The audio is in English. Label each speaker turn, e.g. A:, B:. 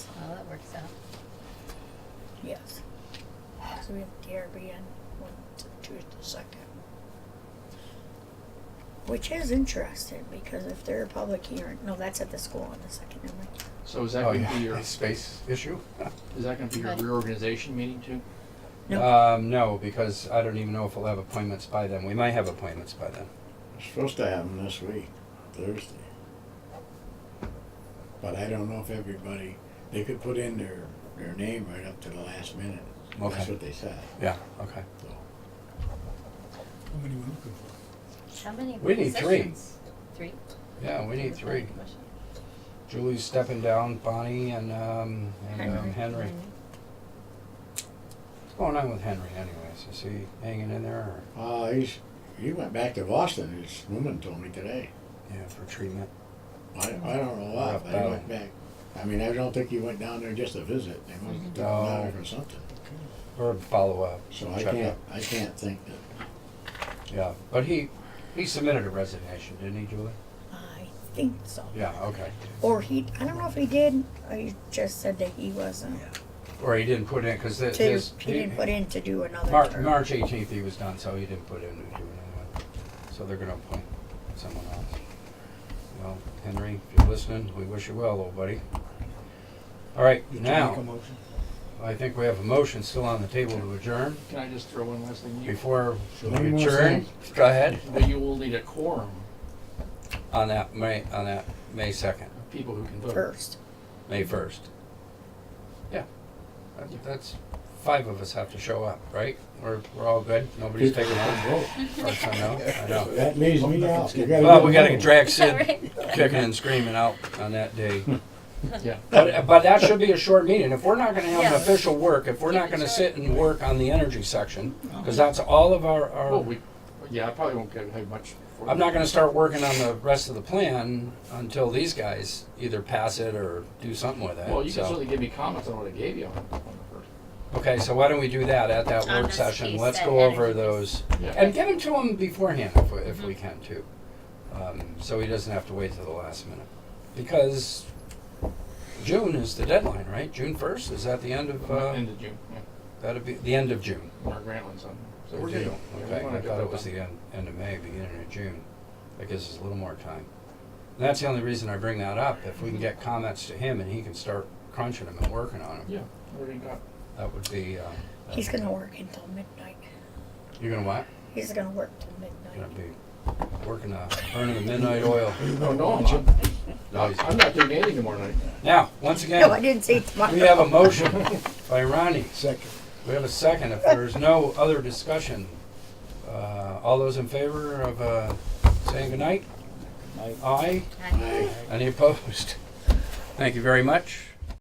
A: works out.
B: Yes. So we have DRB on one to Tuesday the second. Which is interesting because if they're a public hearing, no, that's at the school on the second, never mind.
C: So is that
D: Oh,
C: gonna be your,
D: yeah,
C: is
D: space issue?
C: that gonna be your
A: But-
C: reorganization meeting too?
B: No.
D: Um, no, because I don't even know if we'll have appointments by then. We might have appointments by then.
E: It's supposed to happen this week, Thursday. But I don't know if everybody, they could put in their, their name right up to the last minute. That's
D: Okay.
E: what they said,
D: Yeah, okay.
E: so.
F: How many we looking for?
A: How many
D: We need three.
A: positions? Three?
D: Yeah, we need three.
A: Commission?
D: Julie's stepping down, Bonnie and, um, and um, Henry. What's going on with Henry anyways? Is he hanging in there or,
E: Uh, he's, he went back to Boston, his woman told me today.
D: yeah, for treatment?
E: I, I don't know why,
D: Rough
E: but he
D: battle.
E: went back. I mean, I don't think he went down there just to visit, they must have took him down there
D: No.
E: for something.
D: Or follow-up?
E: So I
D: check
E: can't, I can't think that,
D: up? Yeah, but he, he submitted a resignation, didn't he, Julie?
B: I think so.
D: Yeah, okay.
B: Or he, I don't know if he did, or he just said that he wasn't,
D: Or he didn't put in, because
B: to,
D: this.
B: he didn't put in to do another
D: Mar-
B: term.
D: March eighteenth, he was done, so he didn't put in to do another one. So they're gonna appoint someone else. Well, Henry, if you're listening, we wish you well, old buddy. All right,
F: Did you Make a
D: now,
F: motion.
D: I think we have a motion still on the table to adjourn.
C: Can I just throw one last thing? You,
D: Before
E: One
D: we
E: more
D: adjourn, go ahead,
C: but you will need a quorum
D: on that May, on that May second,
C: of people who can vote.
B: First,
D: May first. Yeah, That- that's, five of us have to show up, right? We're, we're all good, nobody's taking off. I know, I know.
E: that leaves me out. You gotta
D: Well,
E: get
D: we gotta
E: home.
D: drag Sid
A: Right.
D: kicking and screaming out on that day.
C: Yeah.
D: But, but that should be a short meeting. If we're not gonna have an
A: Yeah.
D: official work, if we're
A: Keep
D: not
A: it
D: gonna
A: short.
D: sit and work on the energy section, because that's all of our,
C: Well,
D: our,
C: we, yeah, I probably won't get, have much. for
D: I'm
C: that.
D: not gonna start working on the rest of the plan until these guys either pass it or do something with
C: Well, you
D: it,
C: can
D: so.
C: certainly give me comments on what I gave you on, on the first.
D: Okay, so why don't we do that at that
A: On
D: work
A: this
D: session?
A: piece,
D: Let's
A: that
D: go over
A: energy piece.
D: those.
C: Yeah.
D: And get them to him beforehand if, we- if we can too. Um, so he doesn't have to wait till the last minute. Because June is the deadline, right? June first, is that the end of, uh,
C: End of June, yeah,
D: that'd be, the end of June?
C: Mark Grantland's on. So
D: Or
C: we're good.
D: June.
C: Yeah, we
D: Okay,
C: wanna
D: I
C: get
D: thought
C: that
D: it was
C: done.
D: the end, end of May, beginning of June. That gives us a little more time. And that's the only reason I bring that up. If we can get comments to him and he can start crunching them and working on them,
C: Yeah, everything got,
D: that would be, um,
B: he's gonna work until midnight.
D: you're gonna what?
B: He's gonna work till midnight.
D: Gonna be working, uh, burning the midnight oil.
C: Oh, no, no, I'm not, I'm not doing anything tomorrow night.
D: Now, once
B: No, I
D: again,
B: didn't say tomorrow.
D: we have a motion by Ronnie.
F: Second.
D: We have a second. If there's no other discussion, uh, all those in favor of, uh, saying goodnight? Aye.
A: Aye.
E: I-
D: Any opposed? Thank you very much.